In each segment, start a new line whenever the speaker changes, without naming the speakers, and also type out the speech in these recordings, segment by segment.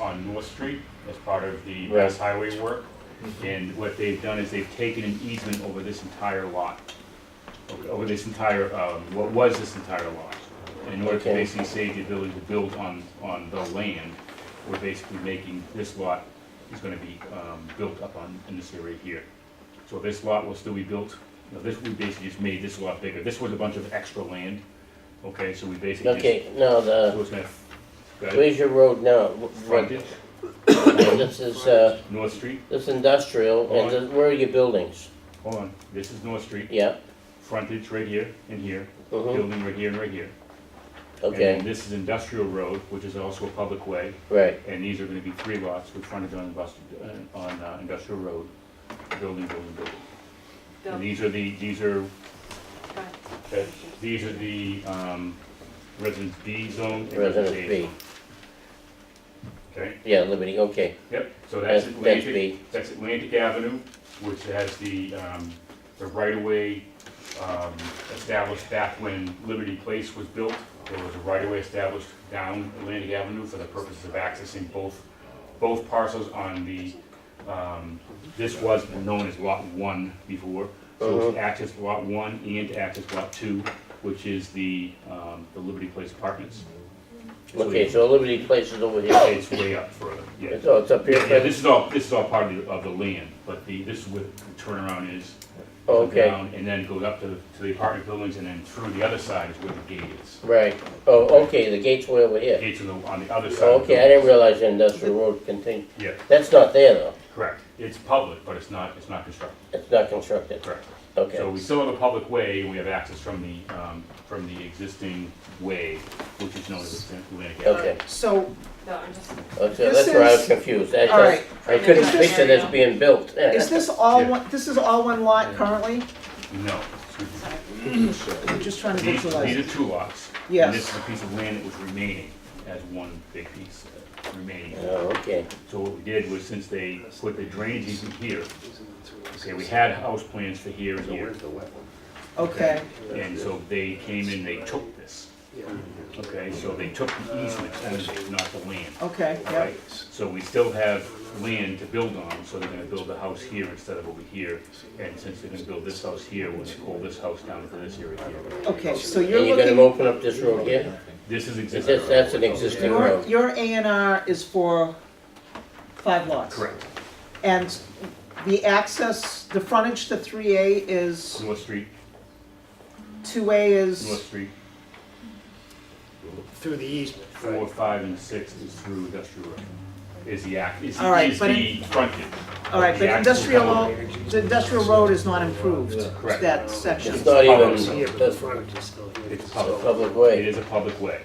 on North Street as part of the
Right. Mm-hmm.
Mass Highway work. And what they've done is they've taken an easement over this entire lot, over- over this entire, um, what was this entire lot. In order to
Okay.
basically save the ability to build on, on the land, we're basically making, this lot is gonna be um, built up on, in this area here. So this lot will still be built, you know, this, we basically just made this lot bigger. This was a bunch of extra land, okay, so we basically just.
Okay, uh, no,
So
the,
it's gonna, go ahead.
where's your road now? Wh- what-
Frontage,
This is, uh,
North Street,
this industrial, and this- where are your buildings?
hold on, this is North Street,
Yeah,
frontage right here and here,
mhm,
building right here and right here. And
okay,
then this is Industrial Road, which is also a public way,
right,
and these are gonna be three lots with frontage on Industrial, on uh, Industrial Road, building, building, building. And these are the, these are, uh, these are the, um, residence B zone and residence
Residence
A
B,
zone. Okay,
yeah, Liberty, okay,
yep, so that's
That's- that's
Atlantic,
B.
That's Atlantic Avenue, which has the, um, the right-of-way, um, established back when Liberty Place was built. There was a right-of-way established down Atlantic Avenue for the purposes of accessing both, both parcels on the, um, this was known as Lot One before. So
Uh-huh.
it's access to Lot One and to access Lot Two, which is the, um, the Liberty Place Apartments.
okay, so Liberty Place is over here.
It's way up further, yeah.
It's, oh, it's up here,
Yeah, yeah, this is all, this is all part of the, of the land, but the, this is where the turnaround is. Goes
Okay.
down And then goes up to, to the apartment buildings, and then through the other side is where the gate is.
right, oh, okay, the gate's way over here.
Gates on the, on the other side.
Oh,
of the
Okay,
building.
I didn't realize the industrial road continued,
Yeah,
that's not there though,
correct. It's public, but it's not, it's not constructed,
it's not constructed,
correct. So
okay,
we still have a public way, and we have access from the, um, from the existing way, which is known as the Atlantic Avenue.
okay.
So,
No, I'm just,
Oh, so
This
that's where I was
is-
confused, I
all right,
just, I couldn't picture this being built.
is this all
Yeah.
one, this is all one lot currently?
No,
I'm just trying to
these,
visualize.
these are two lots.
Yes.
And this is a piece of land that was remaining as one big piece, uh, remaining.
Oh, okay,
So what we did was, since they put the drainage easement here, okay, we had house plans for here and here,
Okay,
and so they came in, they took this. Okay, so they took the easement, and not the land,
okay, yeah,
right? So we still have land to build on, so they're gonna build a house here instead of over here. And since they're gonna build this house here, we're gonna pull this house down to this area here.
okay, so you're
and you're gonna
looking,
open up this road here?
This is existing.
That's, that's an existing
your,
road,
your A and R is for five lots?
Correct.
And the access, the frontage to three A is,
North Street,
two A
North
is,
Street,
Through the easement.
four, five, and six is through industrial road. Is the act, is
All right,
is
but
the frontage.
all right, but
The
industrial,
actual-
lo- the industrial road is not improved,
Correct.
that section.
it's not even,
Here, but the
that's a
frontage is still here.
It's public.
public
It
way,
is a public way.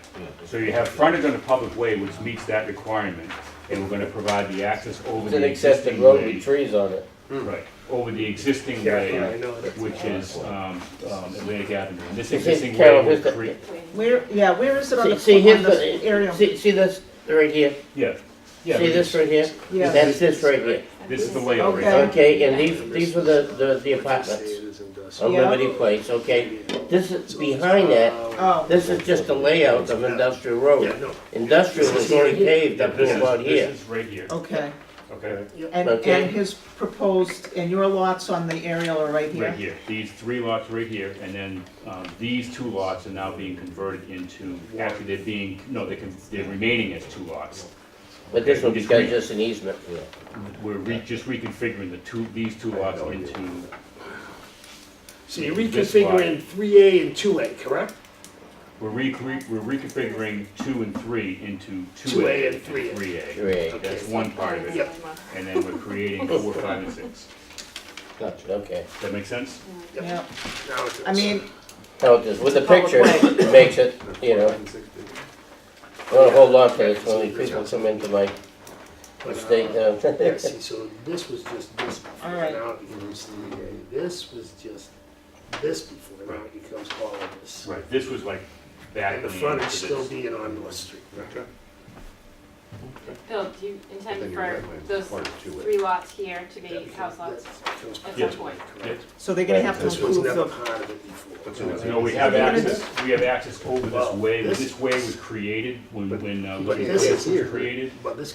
So you have frontage on a public way which meets that requirement, and we're gonna provide the access over
it's an
the
accepted
existing
road with
way.
trees on it.
Right, over the existing
Yeah, I
way,
know that.
which is, um, um, Atlantic Avenue. And this
Is it
existing way
Carol, is
will
that-
create,
Where, yeah, where is it on the,
See, see,
on
here's
the area?
the, see, see this right here,
yeah.
see
Yeah, but
this right here?
Yeah.
That's this right here,
This is the layout right
Okay.
here.
okay, and these, these were the, the, the apartments on
uh,
Yeah.
Liberty Place, okay? This is, behind that,
Oh,
this is just a layout of industrial
Yeah,
road.
no,
Industrial is already paved
Yeah,
up to
this
about
is,
here,
this is right here,
okay,
okay,
and,
Okay.
and his proposed, and your lots on the aerial are right here?
right here. These three lots right here, and then, um, these two lots are now being converted into, actually, they're being, no, they can, they're remaining as two lots.
but this one
It's green.
becomes just an easement.
We're re- just reconfiguring the two, these two lots into
so you're
This lot.
reconfiguring three A and two A, correct?
We're re- re- we're reconfiguring two and three into two
2A
A
and
and
3A.
three A.
Right,
That's one part of it.
Yep.
And then we're creating four, five, and six.
gotcha, okay.
Does that make sense?
Yep.
Yeah,
Now it's-
I mean,
How it is, with the
Public
picture,
way.
it makes it, you know, I wanna hold on to this when these people come into my
But, uh,
state, uh,
Yeah, see, so this was just this before,
All right.
now it becomes three A. This was just this before, now it becomes all of this.
Right, this was like back
And the
land
frontage
to
still
this.
being on North Street.
Bill, do you intend
Then you're
for
right, man.
those
Part of two way.
three lots here to be
That
house lots?
becomes- that becomes
Yes.
part of it, correct?
so they're gonna have to
This was
improve
never
the,
part of it before.
So, you know, we have access, we have access over this
Well,
way,
this-
this way was created when, when, uh,
but
Liberty
this
Place
is
was
here.
created.
But this